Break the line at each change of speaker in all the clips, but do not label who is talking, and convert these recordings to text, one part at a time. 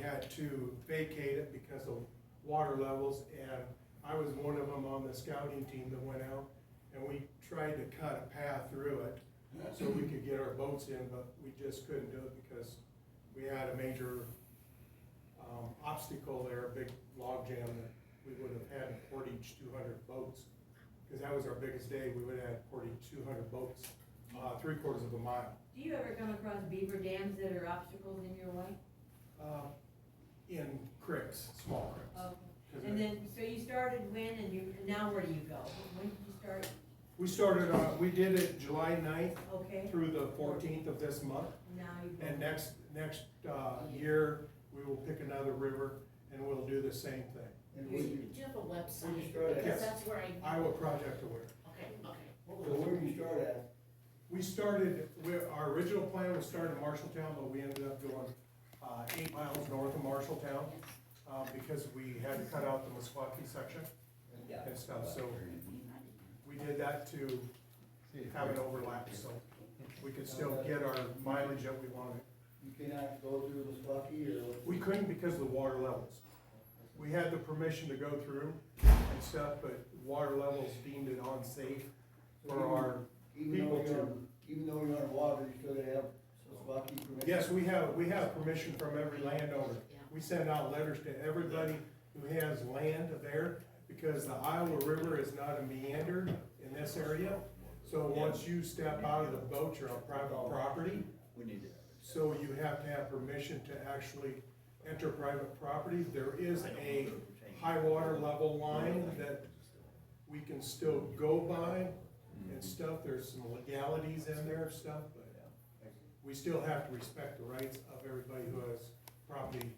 had to vacate it because of water levels, and I was one of them on the scouting team that went out, and we tried to cut a path through it so we could get our boats in, but we just couldn't do it because we had a major, um, obstacle there, a big log jam that we would have had to portage two hundred boats. Cause that was our biggest day, we would have had portage two hundred boats, uh, three quarters of a mile.
Do you ever come across beaver dams that are obstacles in your way?
Uh, in cricks, small cricks.
Oh,
'Cause
And then, so you started when and you, and now where do you go? When did you start?
We started, uh, we did it July 9th
Okay,
through the fourteenth of this month,
now you go.
and next, next, uh, year, we will pick another river and we'll do the same thing.
And
Do
where
you
you,
do you have a
Where you
website?
started?
Yes.
Because that's where I,
Iowa Project Aware.
okay,
so
okay.
where you start at,
We started, we, our original plan was start in Marshalltown, but we ended up going, uh, eight miles north of Marshalltown, uh, because we had to cut out the Meskwaki section
yeah.
and stuff, so we did that to have an overlap, so we could still get our mileage that we wanted.
You cannot go through the Spocky or what?
We couldn't because of the water levels. We had the permission to go through and stuff, but water levels deemed it unsafe for our,
Even though
people
you're,
to-
on- even though you're on water, you still gotta have Spocky permission.
yes, we have, we have permission from every landowner.
Yeah.
We send out letters to everybody who has land there, because the Iowa River is not a meander in this area. So once you step out of the boat, you're on private property,
We need to.
so you have to have permission to actually enter private property. There is a high water level line that we can still go by
Mm-hmm.
and stuff, there's some legalities in there and stuff, but we still have to respect the rights of everybody who has property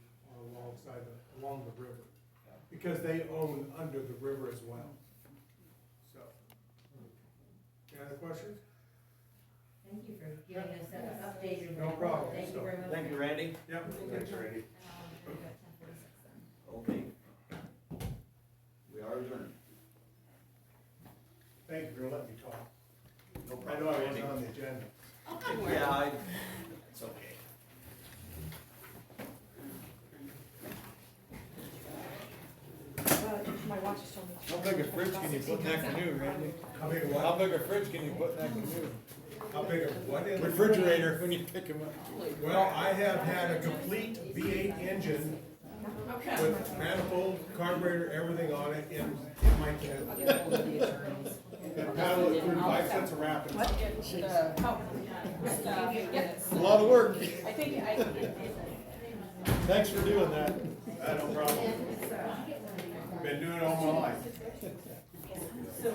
alongside, the- along the river. Because they own under the river as well, so. Any other questions?
Thank you for giving us that updated.
No problem.
Thank you very much.
Thank you, Randy.
Yep.
Thanks,
Um,
Randy.
we've got 10:46 then.
Okay. We are adjourned.
Thank you for letting me talk.
No
I know I
problem,
wasn't
Randy.
on the agenda.
Oh, don't worry.
Yeah, I, it's okay.
Uh, My watch is telling me.
How big a fridge can you put in that canoe, Randy?
How big
How
what?
big a fridge can you put in that canoe?
How big of what? in the-
Refrigerator, when you pick 'em up.
Well, I have had a complete V eight engine
Okay.
with manifold, carburetor, everything on it in, in my cab. And paddle it through five sets of rapids.
A lot of work.
I think, I,
Thanks for doing that.
Uh, no problem. Been doing it all my life.
See you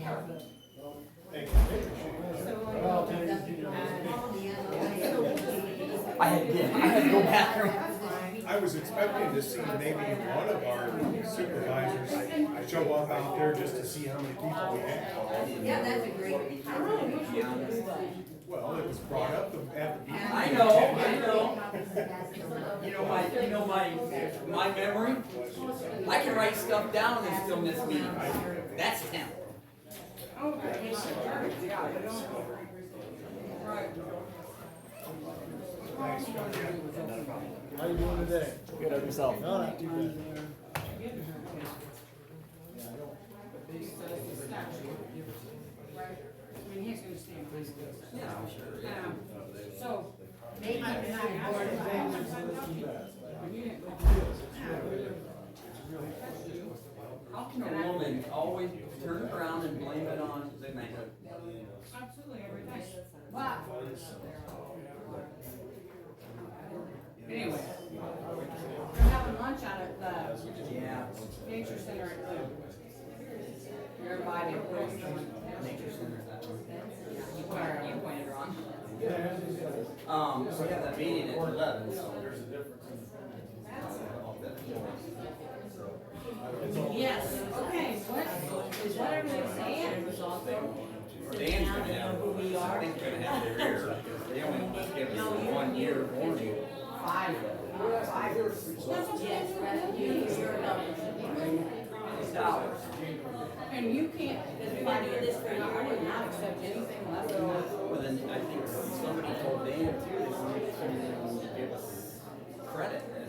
now.
Thank you.
I had, yeah, I had to go bathroom.
I was expecting to see maybe one of our supervisors show up out there just to see how many people we had.
Yeah, that's a great.
Well, it was brought up the- at the meeting.
I know, I know. You know my, you know my, my memory? I can write stuff down and still miss meetings. That's talent.
How you doing today?
Good on yourself.
No, not too bad.
Yeah, I'm sure.
so,
They might not have board of
How can a woman always turn around and blame it on the man?
absolutely everything. Wow. Anyway, we're having lunch out at
Yeah.
the nature center at the. You're invited, please.
Nature center's that one.
You went, you went wrong.
Um, so yeah, that meeting at eleven, so there's a
Yes, okay, what, is what everything's saying was also.
Dan's gonna have, I think they're gonna have their ear, because they only just give us a one year warning.
Five. Five.
It's dollars.
And you can't, if I do this for you, I would not accept anything less than that.
Well, then I think somebody told Dan too, they wanted to give us credit.